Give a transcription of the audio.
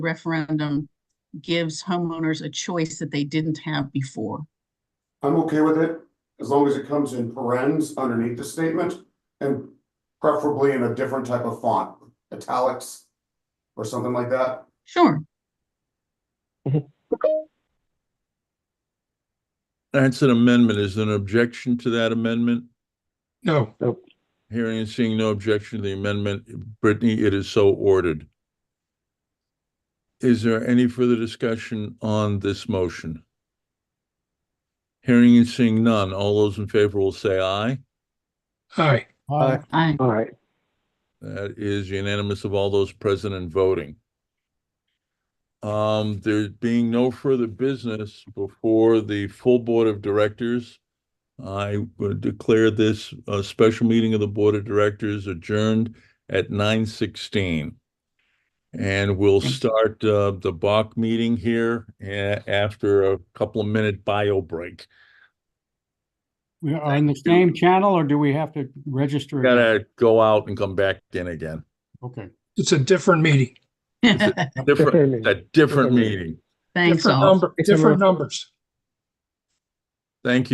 referendum gives homeowners a choice that they didn't have before. I'm okay with it, as long as it comes in parens underneath the statement and preferably in a different type of font, italics. Or something like that. Sure, That's an amendment. Is there an objection to that amendment? No, Hearing and seeing no objection to the amendment, Brittany, it is so ordered. Is there any further discussion on this motion? Hearing and seeing none, all those in favor will say aye. aye, Aye. I, All right, That is unanimous of all those present and voting. Um, there being no further business before the full Board of Directors, I would declare this uh special meeting of the Board of Directors adjourned at nine sixteen. And we'll start uh the Bach meeting here a- after a couple of minute bio break. we are on the same channel, or do we have to register? again? Gotta go out and come back in again. Okay. it's a different meeting, Different, a different Different meeting. meeting. thanks different all. number, different numbers. Thank you.